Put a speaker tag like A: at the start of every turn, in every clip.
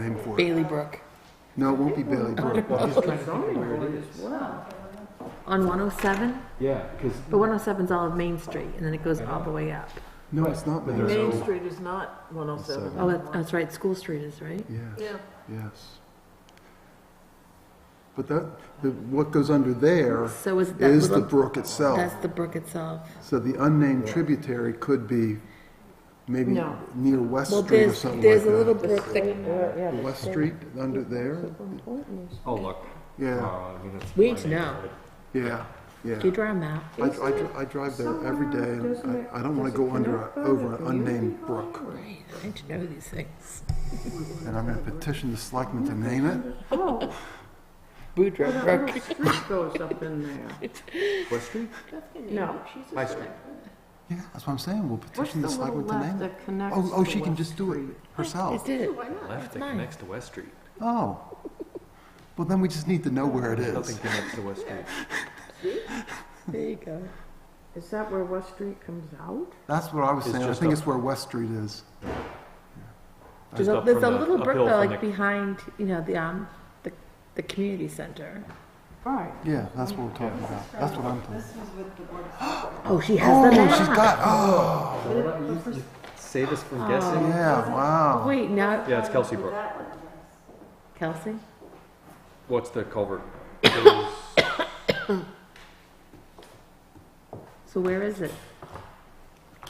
A: name for it.
B: Bailey Brook
A: No, it won't be Bailey Brook.
B: on 107.
C: Yeah, because
B: But 107's all of Main Street, and then it goes all the way up.
A: No, it's not Main
C: There's
D: Main
A: Street.
D: Street is not 107.
B: Oh, that's, that's right. School Street is right.
A: Yes,
D: Yeah.
A: yes. But that, the- what goes under there
B: So is that
A: is the
B: little-
A: brook itself.
B: That's the brook itself.
A: So the unnamed tributary could be maybe
D: No.
A: near West
B: Well,
A: Street or
B: there's
A: something
B: there's a
A: like
B: little
A: that.
B: brook that
A: West Street, under there?
C: oh look,
A: Yeah,
C: Uh, I mean, it's
B: we
C: my
B: need to know.
C: neighborhood.
A: yeah, yeah.
B: Do you draw a map?
A: I, I dr- I drive there every day, and I, I don't want to go under, a- over an unnamed brook.
B: Right. I need to know these things.
A: And I'm going to petition the selectmen to name it.
B: Boudreaux Brook.
D: Street goes up in there.
C: West Street,
D: No.
C: High Street.
A: Yeah, that's what I'm saying, we'll
D: What's
A: petition
D: the
A: the
D: little
A: selectmen to
D: left
A: name it.
D: that connects?
A: Oh, oh,
D: to
A: she can
D: West
A: just do it
D: Street?
B: I
A: herself.
B: did it.
C: Left that
B: mine.
C: connects to West Street.
A: Oh. Well, then we just need to know where it
C: Nothing
A: is.
C: connects to West Street.
B: There you go.
D: Is that where West Street comes out?
A: That's what I was
C: It's
A: saying, I
C: just
A: think
C: up-
A: it's where West Street is.
B: There's
C: Just
B: a,
C: up
B: there's a
C: from the-
B: little brook
C: uphill
B: though,
C: from
B: like
C: the-
B: behind, you know, the um, the, the community center.
D: Right.
A: Yeah, that's what we're talking about, that's what I'm talking
B: Oh, she has
A: about.
B: the map.
A: Oh, she's got, oh,
C: Save us
B: Oh.
C: from guessing.
A: yeah, wow.
B: Wait, now
C: Yeah, it's Kelsey Brook.
B: Kelsey.
C: What's the culvert?
B: So where is it?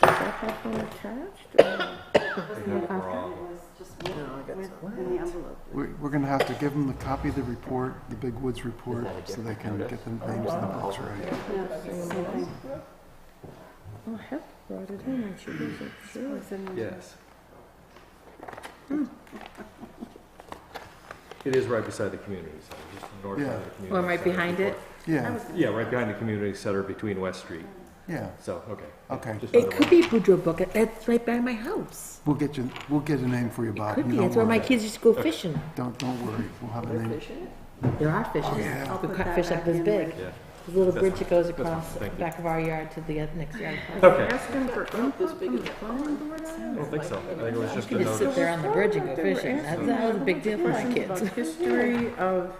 D: That have been attached? or-
A: We're, we're gonna have to give them the copy of the report, the Big Woods report, so they can get the names and the books right.
D: Oh, Hep brought it in and she was like, sure.
C: Yes.
B: Hmm.
C: It is right beside the community center, just north
A: Yeah.
C: side of the community.
B: Or right
C: center
B: behind
C: before-
B: it?
A: Yeah,
C: Yeah, right behind the community center between West Street.
A: yeah,
C: So, okay.
A: okay.
C: Just
B: It
C: another
B: could
C: one.
B: be Boudreaux Brook. That's right by my house.
A: We'll get you, we'll get a name for you, Bob.
B: Could
A: You
B: be.
A: don't
B: That's where my
A: worry.
B: kids used to go fishing.
A: Don't, don't worry, we'll have a name.
B: There are fishes. We caught fish up this big.
C: Oh, Yeah.
B: There's a little
C: That's
B: bridge that goes
C: fine.
B: across the
C: Thank you.
B: back of our yard to the uh, next yard.
C: Okay,
D: Ask him for input from the planning board on
C: I
D: it?
C: don't think so. I think it was just
B: You
C: a
B: could just sit
C: notice.
B: there on the bridge and go fishing. That's, that was a big deal for my
D: Questions
B: kids.
D: about history of,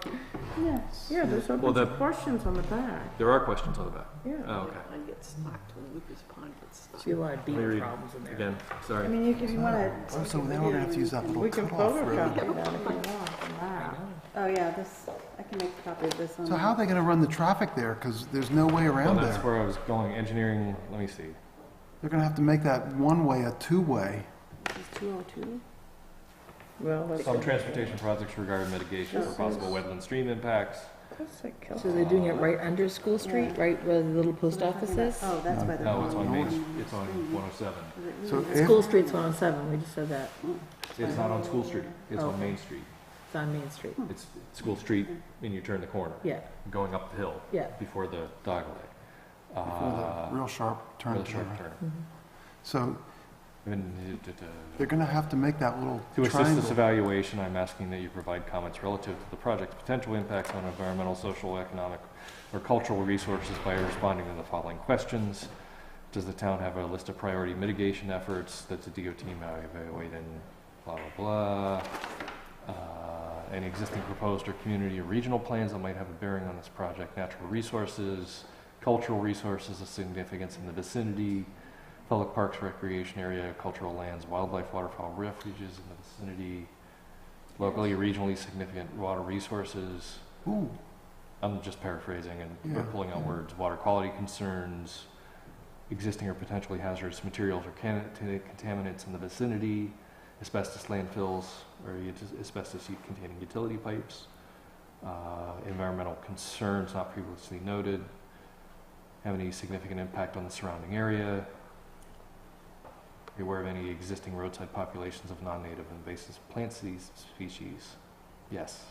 D: yeah, there's a
C: Well,
D: bunch of
C: the-
D: questions on the back,
C: There are questions on the back.
A: Uh,
D: yeah.
C: Oh, okay.
B: She had a lot of
C: Let me
B: beaver
C: read
B: problems in there.
C: Again, sorry.
E: I mean, you- if you want to,
A: Oh, so now we're gonna have to use that little
D: We can
A: cutoff road.
D: photocopy that if you want, the map.
E: oh yeah, this, I can make a copy of this on.
A: So how are they gonna run the traffic there? Because there's no way
C: Well,
A: around
C: that's
A: there.
C: where I was going. Engineering, let me see.
A: They're gonna have to make that one-way a two-way.
E: Two oh two?
D: Well, that's,
C: Some transportation projects regarding mitigation for possible wetland stream impacts.
D: that's like
B: So they're doing it right under School Street, right where the little post office is?
E: Oh, that's why they're.
C: No, it's on
E: calling
C: Main,
E: it
C: Street. it's on 107.
A: So
B: School
A: if,
B: Street's 107, we just said that.
C: It's not on School Street, it's on Main Street.
B: It's on Main Street.
C: It's School Street and you turn the corner,
B: Yeah,
C: going up the hill
B: yeah.
C: before the dog leg.
A: for the uh,
C: Uh,
A: real sharp turn,
C: Real sharp
A: turn.
C: turn.
B: Mm-hmm.
A: So
C: And, uh,
A: they're gonna have to make that little
C: To assist this
A: triangle.
C: evaluation, I'm asking that you provide comments relative to the project's potential impacts on environmental, social, economic, or cultural resources by responding to the following questions. Does the town have a list of priority mitigation efforts that the DOT may evaluate and blah, blah, blah? Uh, Any existing proposed or community or regional plans that might have a bearing on this project, natural resources, cultural resources of significance in the vicinity, public parks, recreation area, cultural lands, wildlife, waterfowl refuges in the vicinity, locally, regionally significant water resources.
A: Ooh,
C: I'm just paraphrasing and
A: Yeah.
C: pulling out words. Water quality concerns, existing or potentially hazardous materials or can- t- contaminants in the vicinity, asbestos landfills or ut- asbestos containing utility pipes, uh, environmental concerns not previously noted, have any significant impact on the surrounding area, be aware of any existing roadside populations of non-native invasive plant species- species. Yes,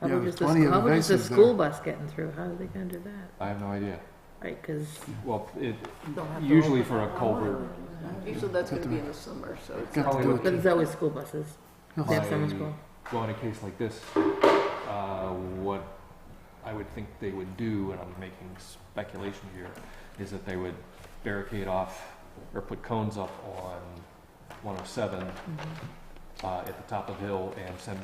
B: How
A: Yeah,
B: about
A: there's
B: just the,
A: plenty of
B: how about just the
A: invasives there.
B: school bus getting through? How are they gonna do that?
C: I have no idea.
B: Right, because
C: Well, it,
B: they'll have to.
C: usually
B: open-
C: for a culvert,
D: Usually that's
A: gonna be
D: in the summer, so.
A: got to do
B: But
A: it.
B: there's always school buses. They have summer
C: I-
B: school.
C: well, in a case like this, uh, what I would think they would do, and I'm making speculation here, is that they would oh
B: Mm-hmm.
C: barricade off or put cones up on 107 uh, at the top of the hill and send